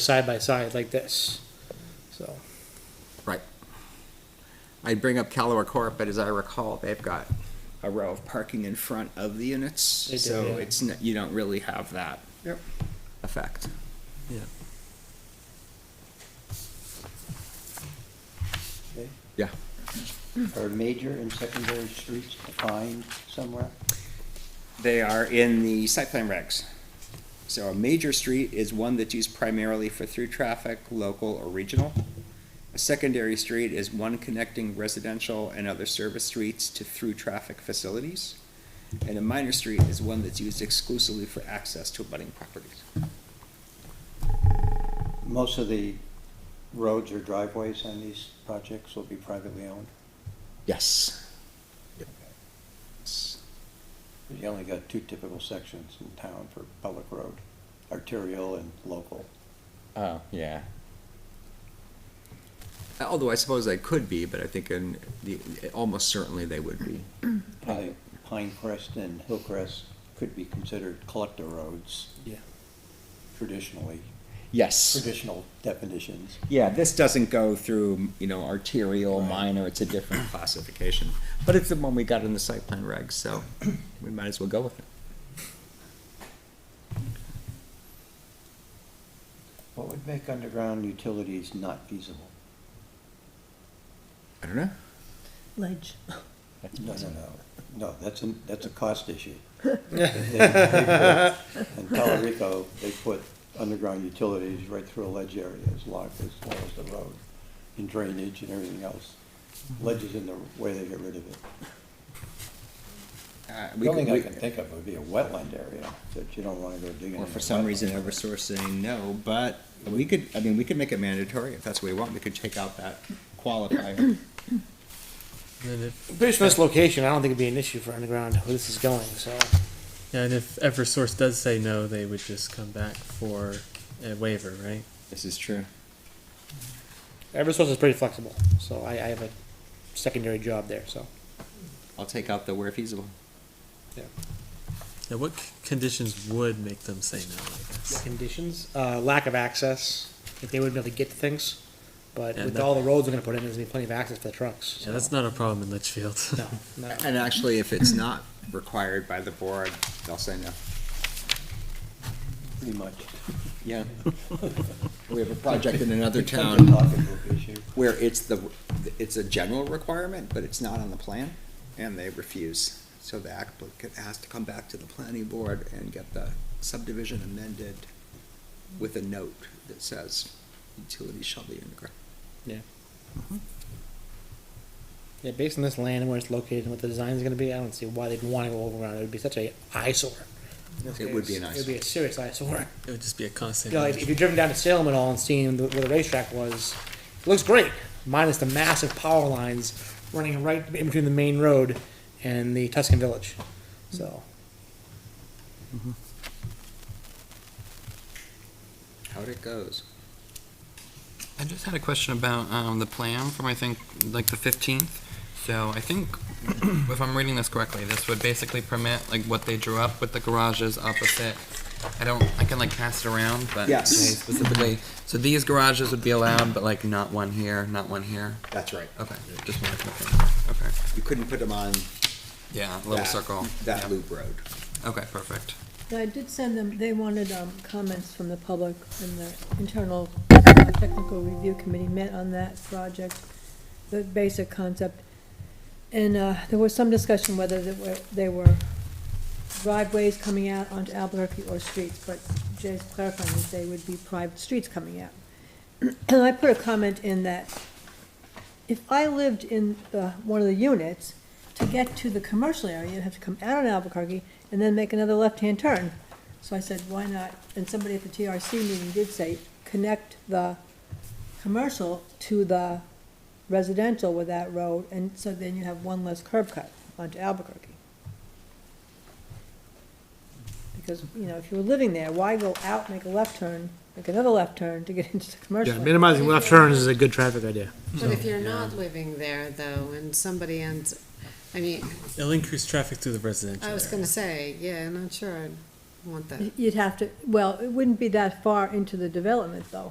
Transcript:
side by side like this. So, Right. I'd bring up Callaware Court, but as I recall, they've got a row of parking in front of the units, They do, so yeah. it's, n- you don't really have that Yep. effect. Yeah. Okay. Yeah. Are major and secondary streets defined somewhere? They are in the site plan regs. So a major street is one that's used primarily for through traffic, local or regional. A secondary street is one connecting residential and other service streets to through traffic facilities. And a minor street is one that's used exclusively for access to abutting properties. Most of the roads or driveways on these projects will be privately owned. Yes. You only got two typical sections in town for public road, arterial and local. Oh, yeah. Although I suppose they could be, but I think in the, almost certainly they would be. Probably Pinecrest and Hillcrest could be considered collector roads yeah. traditionally, Yes. traditional definitions. Yeah, this doesn't go through, you know, arterial, minor, it's a different classification. But it's the one we got in the site plan regs, so we might as well go with it. What would make underground utilities not feasible? I don't know. Ledge. No, no, no, no, that's a, that's a cost issue. In Palo Rico, they put underground utilities right through a ledge area as long as, long as the road, and drainage and everything else. Ledge is in the way they get rid of it. Uh, we The only could- thing I we- can think of would be a wetland area that you don't wanna go digging. Or in for a some wetland. reason, Eversource saying no, but we could, I mean, we could make it mandatory if that's what we want, we could take out that qualifier. And if, Based on this location, I don't think it'd be an issue for underground where this is going. So, yeah, and if Eversource does say no, they would just come back for a waiver, right? This is true. EverSource is pretty flexible. So, I, I have a secondary job there. So, I'll take out the where feasible. yeah. Now, what c- conditions would make them say no? I guess. Conditions, uh, lack of access, if they wouldn't be able to get to things. But Yeah, with that- all the roads we're going to put in, there's going to be plenty of access for the trucks. Yeah, that's not a problem in Litchfield. No, no. And actually, if it's not required by the board, they'll say no. Pretty much. Yeah. We have a project in another It's town. something off of the issue. where it's the, it's a general requirement, but it's not on the plan, and they refuse. So the applicant has to come back to the planning board and get the subdivision amended with a note that says utilities shall be underground. Yeah. Mm-hmm. Yeah, based on this land and where it's located and what the design is going to be, I don't see why they'd want to go overground. It would be such a eyesore. in this It would be case. an It would be a serious eyesore. It would just be a constant. You know, if, if you've driven down to Salem at all and seen the, where the racetrack was, it looks great, minus the massive power lines running right in between the main road and the Tuscan Village. So, How'd it goes? I just had a question about um, the plan from, I think, like the 15th. So I think, if I'm reading this correctly, this would basically permit like what they drew up with the garages opposite. I don't, I can like pass it around, but. Yes. they Specifically, so these garages would be allowed, but like not one here, not one here. That's right. Okay, just wanted to confirm. Okay, You couldn't put them on yeah, little that- circle. That Yeah. loop road. Okay, perfect. I did send them, they wanted um, comments from the public, and the internal uh, technical review committee met on that project, the basic concept. And uh, there was some discussion whether they were- they were driveways coming out onto Albuquerque or streets, but Jay's clarifying that they would be private streets coming out. And I put a comment in that if I lived in the, one of the units, to get to the commercial area, you'd have to come out on Albuquerque and then make another left-hand turn. So I said, why not? And somebody at the TRC meeting did say, connect the commercial to the residential with that road, and so then you have one less curb cut onto Albuquerque. Because, you know, if you were living there, why go out, make a left turn, make another left turn to get into the commercial? area? minimizing left turns is a good traffic idea. But if you're not living there though, and somebody ends, I mean, It'll increase traffic through the residential. I was area. gonna say, yeah, I'm not sure, I'd want that. You'd have to, well, it wouldn't be that far into the development, though.